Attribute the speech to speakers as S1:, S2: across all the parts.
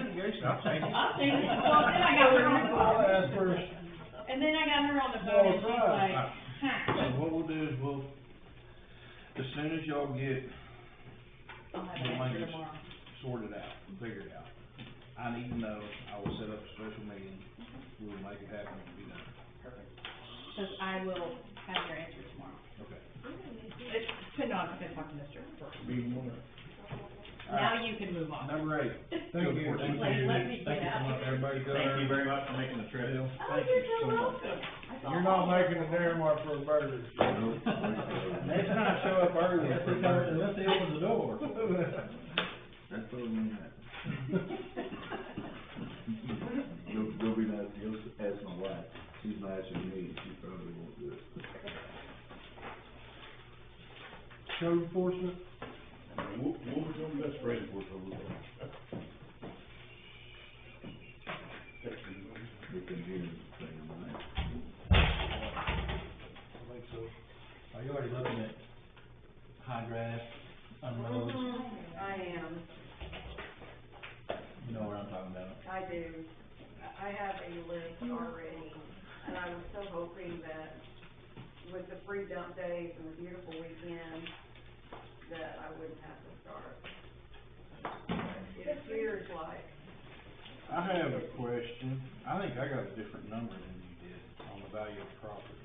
S1: I'll take it.
S2: I'll take it. Well, then I got her on the phone.
S1: I'll ask her.
S2: And then I got her on the
S1: Oh,
S2: phone and she's like,
S1: Ah.
S2: huh.
S1: So what we'll do is we'll, as soon as y'all get
S2: I'll have an answer tomorrow.
S1: sorted out, figured out, I need to know, I will set up a special meeting, we'll make it happen, and be done.
S2: Cause I will have your answer tomorrow.
S1: Okay.
S2: It's been on, I've been talking to Mr. first.
S1: Be more. Ah.
S2: Now you can move on.
S1: Number eight.
S3: Thank
S1: Good
S3: you.
S1: for
S3: Thank
S2: Like,
S3: you.
S2: let me
S1: Thank
S2: get
S1: you so much,
S2: out.
S1: everybody got
S3: Thank you
S1: our
S3: very much for making the trip.
S1: deal.
S2: Oh,
S1: Thank
S2: you're
S1: you so
S2: so
S1: much.
S2: welcome. I saw
S3: You're not
S2: all of
S3: making
S2: them.
S3: a damn mark for a burger.
S1: Next time, show up early.
S3: Unless he comes- unless
S1: he opens the door.
S4: That's all we have. Go, go be nice, go ask my wife, she's nicer than me, she probably won't do it.
S3: Code enforcement,
S5: What, what was your best friend for so long?
S4: The computer thing, right?
S3: I think so. Are you already looking at high grass,
S2: Mm-hmm.
S3: unroads,
S6: I am,
S3: you know what I'm talking about?
S6: I do. I I have a list already, and I was so hoping that with the free dump days and the beautiful weekend, that I wouldn't have to start. But It appears like
S1: I have a question. I think I got a different number than you did on the value of property.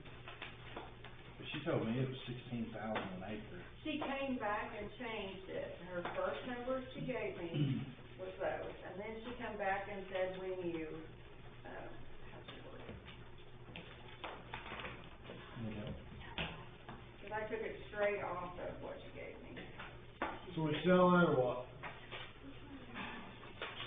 S1: But she told me it was sixteen thousand an acre.
S6: she came back and changed it. Her first number she gave me was those, and then she come back and said, when you, um, how'd she word it?
S3: You know?
S6: Cause I took it straight off of what she gave me.
S3: So we selling or what?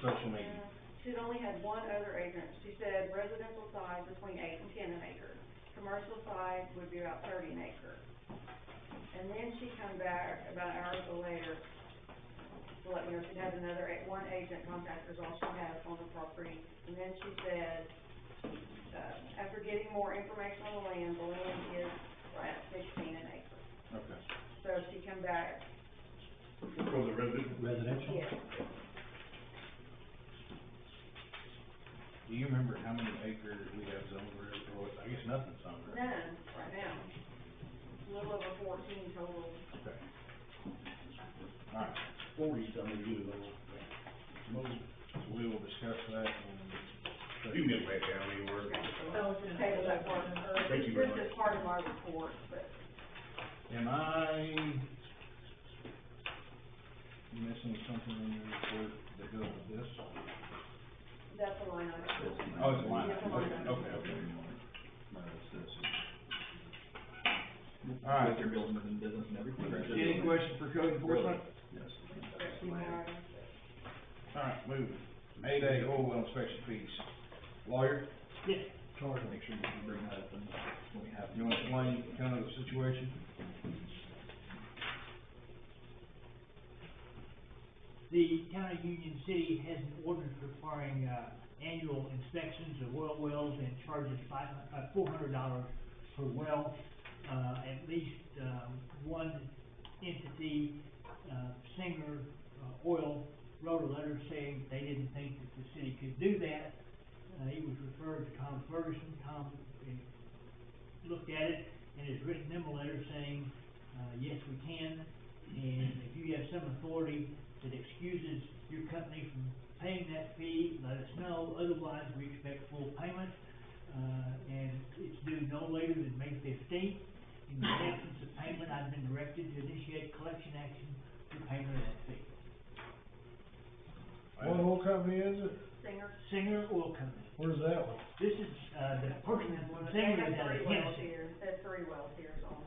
S1: Special meeting.
S6: She's only had one other acre. She said residential size between eight and ten an acre. Commercial size would be about thirty an acre. And then she come back about an hour or so later to let me know she had another, a- one agent contractor is all she has on the property. And then she said, uh, after getting more information on the land, the land is at sixteen an acre.
S1: Okay.
S6: So she come back,
S5: For the resident,
S3: Residential?
S6: yes,
S1: Do you remember how many acres we have zoned for, it? or I guess nothing's zoned for? it.
S6: none right now. A little over fourteen total.
S1: Okay. All right,
S5: forty something, you know. Most,
S1: we will discuss that and.
S5: you can get back down anywhere.
S6: So, just table that part, or
S5: Thank you very
S6: this is part of my report, but
S1: Am I missing something in your report that goes with this?
S6: that's the line item.
S1: Oh, it's a line
S6: It's a
S1: item, okay,
S6: line item.
S1: okay, okay.
S4: My assessment.
S1: All right.
S4: Your building and business and everything.
S1: Any question for code enforcement?
S4: Yes.
S6: That's the line item.
S1: All right, moving. Eight A, oil well inspection fees. Lawyer,
S3: Charge
S4: Make sure you can bring that up and when we have.
S1: you wanna explain kind of the situation?
S7: The town of Union City has an ordinance requiring, uh, annual inspections of oil wells and charges five, uh, four hundred dollars per well. Uh, at least, um, one entity, uh, Singer uh, Oil wrote a letter saying they didn't think that the city could do that. Uh, he was referred to Tom Ferguson, Tom, uh, looked at it and has written them a letter saying, uh, yes, we can. And if you have some authority that excuses your company from paying that fee, let us know, otherwise we expect full payment. Uh, and it's due no later than May fifteenth. In the absence of payment, I've been directed to initiate collection action for payment of that fee.
S3: What oil company is it?
S6: Singer.
S7: Singer Oil Company,
S3: Where's that one?
S7: this is, uh, the person from Singer is out
S6: They have three wells
S7: of Tennessee.
S6: here, they have three wells here is all.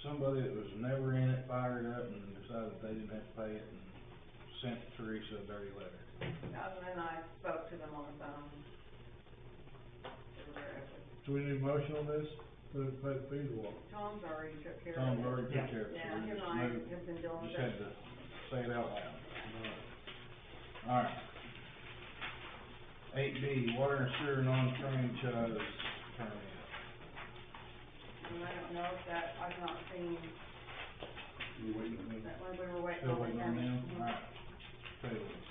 S1: Somebody that was never in it fired up and decided they didn't have to pay it and sent Teresa a dirty letter.
S6: Um, And then I spoke to them on the phone. They were very open.
S3: Do we need a motion on this? The, the fee to what?
S6: Tom's already took care of
S1: Tom
S6: it.
S1: already
S7: Yeah.
S1: took care of it, so
S6: Yeah,
S1: we
S6: him and
S1: just
S6: I
S1: moved-
S6: have been dealing with
S1: just had
S6: it.
S1: to say it out loud. All right. Eight B, water and sewer non-franchise permit.
S6: And I don't know if that, I've not seen,
S5: You waiting on me?
S6: that one we were waiting
S1: Still
S6: on. the
S1: waiting on
S6: county.
S1: them,
S6: Mhm.
S1: alright. Tables.